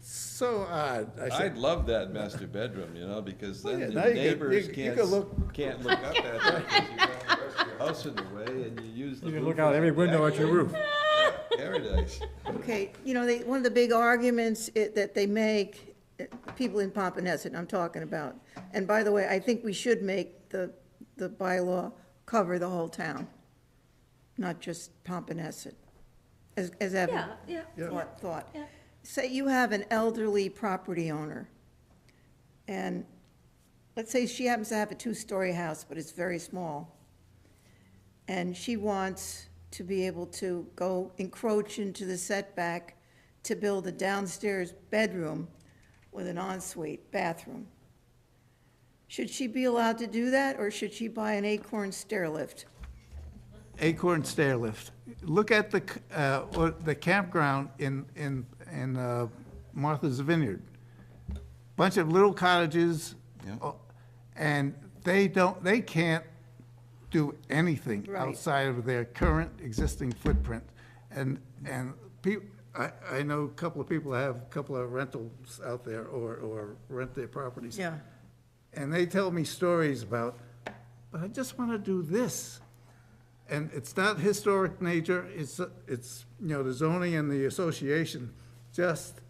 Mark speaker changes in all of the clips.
Speaker 1: so odd. I
Speaker 2: I'd
Speaker 1: should,
Speaker 2: love that master bedroom, you know, because
Speaker 1: Well,
Speaker 2: then
Speaker 1: Oh, yeah,
Speaker 2: the
Speaker 1: now you could- you-
Speaker 2: neighbors
Speaker 1: you
Speaker 2: can't,
Speaker 1: could
Speaker 2: s-
Speaker 1: look-
Speaker 2: can't look up at that. 'cause you got the rest of your House in the way and you use the.
Speaker 3: You can
Speaker 2: roof
Speaker 3: look out
Speaker 2: as
Speaker 3: every
Speaker 2: a
Speaker 3: window at your
Speaker 2: balcony.
Speaker 3: roof.
Speaker 2: Paradise.
Speaker 4: Okay, you know, they, one of the big arguments i- that they make, eh, people in Pompanesett, I'm talking about, and by the way, I think we should make the, the bylaw cover the whole town, not just Pompanesett, as, as Evan
Speaker 5: Yeah, yeah.
Speaker 4: thought, thought.
Speaker 5: Yeah.
Speaker 4: Say you have an elderly property owner, and let's say she happens to have a two-story house, but it's very small, and she wants to be able to go encroach into the setback to build a downstairs bedroom with an ensuite bathroom. Should she be allowed to do that, or should she buy an Acorn stair lift?
Speaker 1: Acorn stair lift. Look at the, c- uh, or the campground in, in, in uh, Martha's Vineyard. Bunch of little cottages.
Speaker 2: Yeah.
Speaker 1: uh, And they don't, they can't do anything
Speaker 4: Right.
Speaker 1: outside of their current existing footprint. And, and people, I, I know a couple of people have a couple of rentals out there or, or rent their properties. And they tell me stories about, but I just want to do this. And it's not historic nature, it's, it's, you know, the zoning and the association, just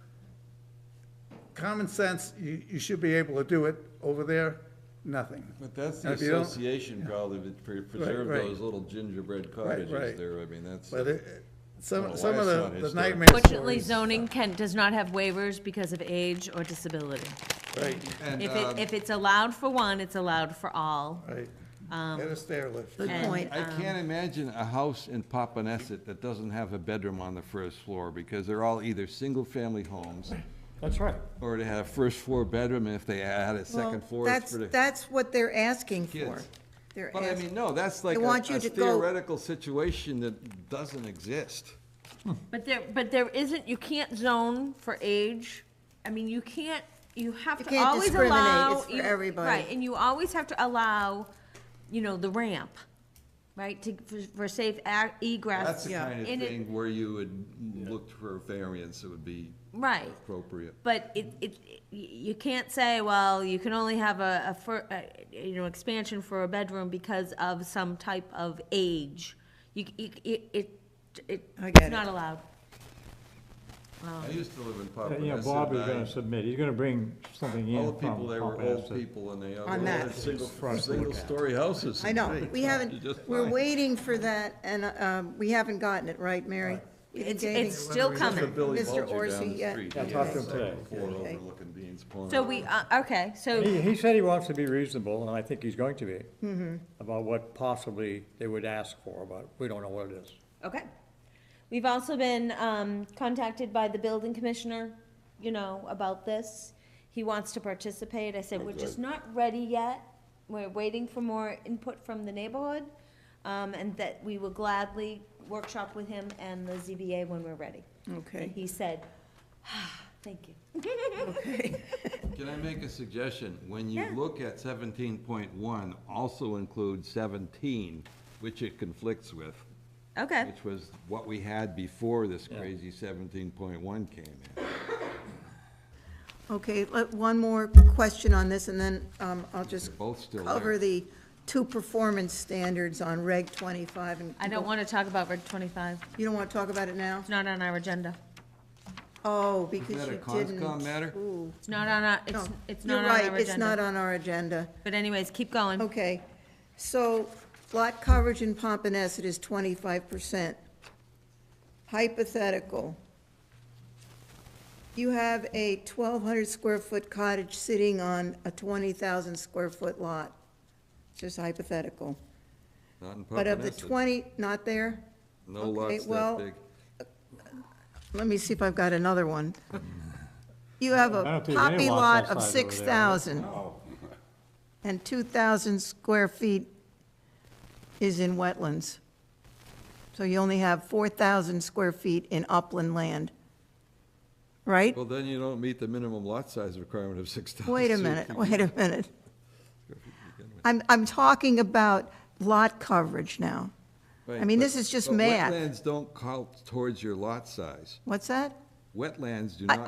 Speaker 1: common sense, you, you should be able to do it. Over there, nothing.
Speaker 2: But that's the
Speaker 1: If you don't-
Speaker 2: association probably that pre- preserve
Speaker 1: right.
Speaker 2: those little gingerbread cottages
Speaker 1: right.
Speaker 2: there. I mean, that's,
Speaker 1: But it, some,
Speaker 2: Well,
Speaker 1: some
Speaker 2: why
Speaker 1: of
Speaker 2: it's not
Speaker 1: the- the
Speaker 2: historic.
Speaker 1: nightmare
Speaker 5: Fortunately,
Speaker 1: stories-
Speaker 5: zoning can, does not have waivers because of age or disability.
Speaker 1: Right,
Speaker 2: and,
Speaker 5: If
Speaker 2: um,
Speaker 5: it, if it's allowed for one, it's allowed for all.
Speaker 1: uh, right.
Speaker 5: um,
Speaker 1: Get a stair lift.
Speaker 4: Good
Speaker 5: And-
Speaker 4: point.
Speaker 2: I can't imagine a house in Papaneset that doesn't have a bedroom on the first floor because they're all either single-family homes
Speaker 3: That's right.
Speaker 2: or they had a first-floor bedroom and if they add a
Speaker 4: Well,
Speaker 2: second floor, it's
Speaker 4: that's-
Speaker 2: for the.
Speaker 4: That's what they're asking for.
Speaker 2: Kids.
Speaker 4: They're
Speaker 2: But I
Speaker 4: asking-
Speaker 2: mean, no, that's like a
Speaker 4: want you
Speaker 2: a
Speaker 4: to go-
Speaker 2: theoretical situation that doesn't exist.
Speaker 5: But there, but there isn't, you can't zone for age. I mean, you can't, you have
Speaker 4: You
Speaker 5: to
Speaker 4: can't
Speaker 5: always
Speaker 4: discriminate.
Speaker 5: allow.
Speaker 4: It's for
Speaker 5: you-
Speaker 4: everybody.
Speaker 5: Right, and you always have to allow, you know, the ramp, right, to, for- for safe ac- egress.
Speaker 2: That's the
Speaker 4: Yeah.
Speaker 2: kind of
Speaker 5: And it-
Speaker 2: thing where you would look for a variance that would be
Speaker 5: Right.
Speaker 2: appropriate.
Speaker 5: But it, it, y- you can't say, well, you can only have a, a fir, a, you know, expansion for a bedroom because of some type of age. You, you, it, it, it-
Speaker 4: I get
Speaker 5: it's not
Speaker 4: it.
Speaker 5: allowed. Um,
Speaker 2: I used to live in
Speaker 3: You know,
Speaker 2: Papaneset.
Speaker 3: Bob is
Speaker 2: and I-
Speaker 3: gonna submit, he's gonna bring something in
Speaker 2: All
Speaker 3: from.
Speaker 2: the people, they were old
Speaker 3: Pompanesett.
Speaker 2: people and they all
Speaker 4: On
Speaker 2: had
Speaker 4: that.
Speaker 2: single,
Speaker 3: For us to look at.
Speaker 2: single-story houses.
Speaker 4: I know, we
Speaker 2: You
Speaker 4: haven't,
Speaker 2: just
Speaker 4: we're
Speaker 2: fine.
Speaker 4: waiting for that, and um, we haven't gotten it, right, Mary? We've been
Speaker 5: It's,
Speaker 4: waiting.
Speaker 5: it's still coming.
Speaker 2: Billy
Speaker 4: Mr.
Speaker 2: Bulger down
Speaker 4: Orsi,
Speaker 2: the
Speaker 4: yeah.
Speaker 2: street,
Speaker 3: Yeah,
Speaker 2: he
Speaker 3: talk
Speaker 2: had
Speaker 3: to
Speaker 2: a
Speaker 3: him today.
Speaker 2: second floor
Speaker 4: Okay.
Speaker 2: overlooking Dean's Pond.
Speaker 5: So we, uh, okay, so,
Speaker 3: He, he said he wants to be reasonable, and I think he's going to be, about what possibly they would ask for, but we don't know what it is.
Speaker 5: okay. We've also been, um, contacted by the building commissioner, you know, about this. He wants to participate. I said, we're just not ready yet. We're waiting for more input from the neighborhood. Um, and that we will gladly workshop with him and the ZBA when we're ready. And
Speaker 4: Okay,
Speaker 5: he said, "Ah, thank you.
Speaker 4: okay.
Speaker 2: Can I make a suggestion? When you
Speaker 5: Yeah.
Speaker 2: look at seventeen point one, also include seventeen, which it conflicts with,
Speaker 5: Okay,
Speaker 2: which was what we had before this crazy seventeen point one came in.
Speaker 4: Okay, let- one more question on this, and then um, I'll just
Speaker 2: They're both still there.
Speaker 4: cover the two performance standards on Reg 25 and.
Speaker 5: I don't wanna talk about Route twenty-five.
Speaker 4: You don't want to talk about it now?
Speaker 5: It's not on our agenda.
Speaker 4: Oh, because
Speaker 2: that a
Speaker 4: you
Speaker 2: Conscom
Speaker 4: didn't.
Speaker 2: matter?
Speaker 4: Ooh,
Speaker 5: It's not on our,
Speaker 4: no,
Speaker 5: it's, it's
Speaker 4: you're
Speaker 5: not on our
Speaker 4: right,
Speaker 5: agenda.
Speaker 4: it's not on our agenda.
Speaker 5: But anyways, keep going.
Speaker 4: Okay, so lot coverage in Pompanesett is twenty-five percent. Hypothetical. You have a twelve hundred square foot cottage sitting on a twenty thousand square foot lot. Just hypothetical.
Speaker 2: Not in
Speaker 4: But of the
Speaker 2: Papaneset.
Speaker 4: twenty, not there?
Speaker 2: No
Speaker 4: okay,
Speaker 2: lots
Speaker 4: well-
Speaker 2: that big.
Speaker 4: Let me see if I've got another one. You have
Speaker 3: I
Speaker 4: a
Speaker 3: don't think there's any
Speaker 4: poppy lot
Speaker 3: lots
Speaker 4: of
Speaker 3: outside over
Speaker 4: six
Speaker 3: there.
Speaker 4: thousand. And two thousand square feet is in wetlands. So you only have four thousand square feet in upland land. Right?
Speaker 2: Well, then you don't meet the minimum lot size requirement of six thousand.
Speaker 4: Wait a minute, wait a minute. I'm, I'm talking about lot coverage now. I mean, this is just math.
Speaker 2: Wetlands don't count towards your lot size.
Speaker 4: What's that?
Speaker 2: Wetlands do
Speaker 4: I-
Speaker 2: not